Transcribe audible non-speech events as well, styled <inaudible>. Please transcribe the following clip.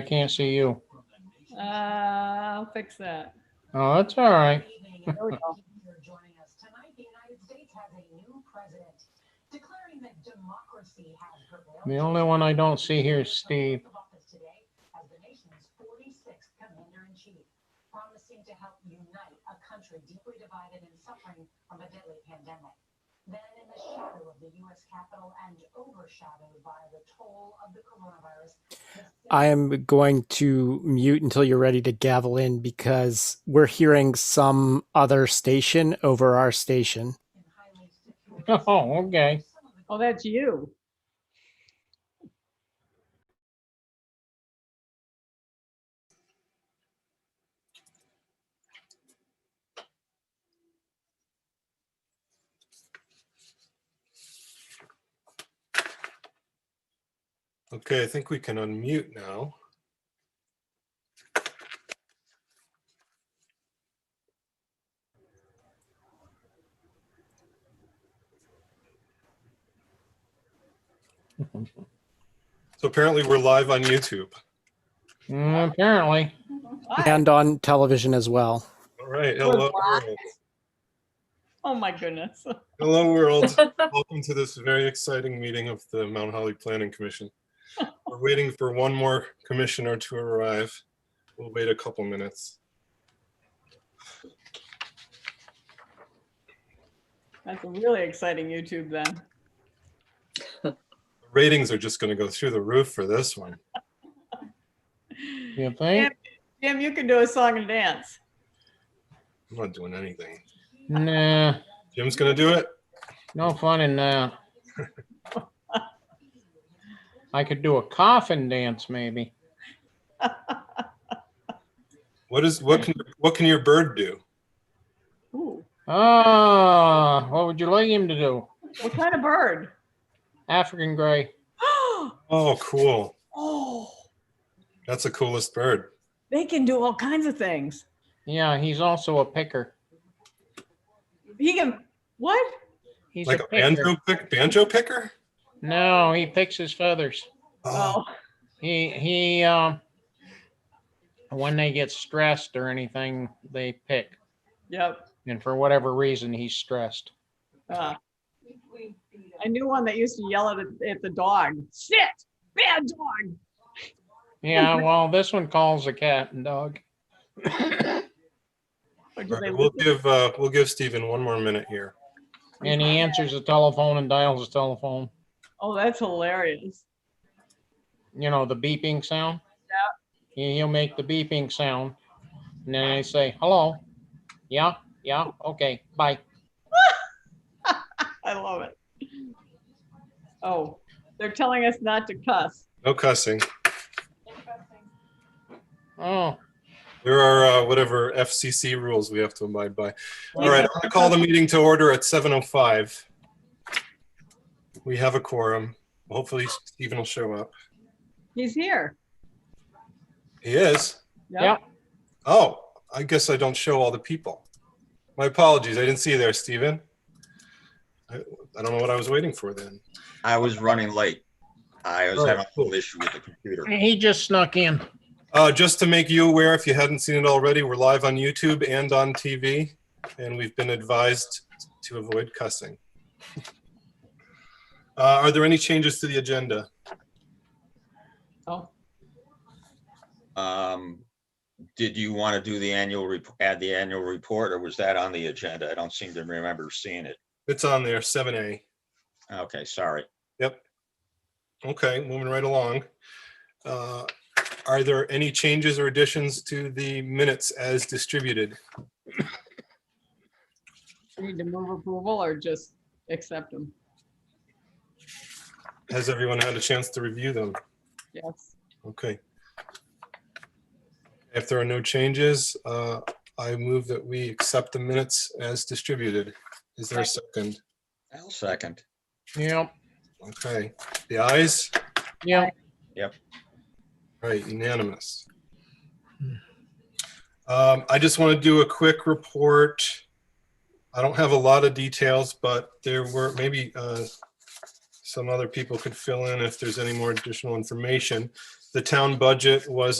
I can't see you. Uh, I'll fix that. Oh, that's all right. <laughs> There we go. joining us tonight, the United States has a new president, declaring that democracy has prevailed. The only one I don't see here is Steve. Of office today as the nation's 46th commander-in-chief, promising to help unite a country deeply divided and suffering from a deadly pandemic. Then in the shadow of the U.S. Capitol and overshadowed by the toll of the coronavirus. Uh, the I am going to mute until you're ready to gavel in because we're hearing some other station over our station. in highly secure- Oh, okay. Some of the Oh, that's you. Okay, I think we can unmute now. So apparently we're live on YouTube. Mm, Apparently. Hi. and on television as well. All right, hello world. Oh, my goodness. <laughs> Hello world. Welcome to this very exciting meeting of the Mount Holly Planning Commission. We're waiting for one more commissioner to arrive. We'll wait a couple minutes. That's a really exciting YouTube then. ratings are just going to go through the roof for this one. You think? Jim, you can do a song and dance. <laughs> I'm not doing anything. Nah, Jim's going to do it. no fun in that. I could do a coffin dance maybe. What is what can what can your bird do? Ooh, Ah, what would you like him to do? what kind of bird? <gasps> African gray. Oh, cool. Oh, That's the coolest bird. they can do all kinds of things. Yeah, he's also a picker. He can, what? He's Like a picker. banjo pick, banjo picker? No, he picks his feathers. Oh, Oh, He, he, um, when they get stressed or anything, they pick. yep. And for whatever reason, he's stressed. Uh, I knew one that used to yell at, at the dog, shit, bad dog. Yeah, well, this one calls a cat and dog. Or do All they right, we'll give uh, we'll give Stephen one more minute here. And he answers the telephone and dials the telephone. Oh, that's hilarious. You know, the beeping sound. Yeah. He'll make the beeping sound. And then I say, hello. Yeah, yeah, okay, bye. I love it. Oh, they're telling us not to cuss. No cussing. Oh, There are uh, whatever FCC rules we have to abide by. All right, I'm going to call the meeting to order at 7:05. We have a quorum. Hopefully, Stephen will show up. He's here. He is. Yep. Oh, I guess I don't show all the people. My apologies. I didn't see you there, Stephen. I, I don't know what I was waiting for then. I was running late. I was Oh, having a cool. little issue with the computer. he just snuck in. Uh, just to make you aware, if you hadn't seen it already, we're live on YouTube and on TV, and we've been advised to avoid cussing. <laughs> Uh, are there any changes to the agenda? Oh, Um, did you want to do the annual, rep- add the annual report or was that on the agenda? I don't seem to remember seeing it. It's on there, 7A. Okay, sorry. Yep. Okay, moving right along. Uh, Are there any changes or additions to the minutes as distributed? we need to move approval or just accept him? Has everyone had a chance to review them? Yes. Okay. If there are no changes, uh, I move that we accept the minutes as distributed. Is there a second? I'll second. Yep, Okay, the ayes, yep. right, unanimous. Um, I just want to do a quick report. I don't have a lot of details, but there were maybe uh, some other people could fill in if there's any more additional information. The town budget was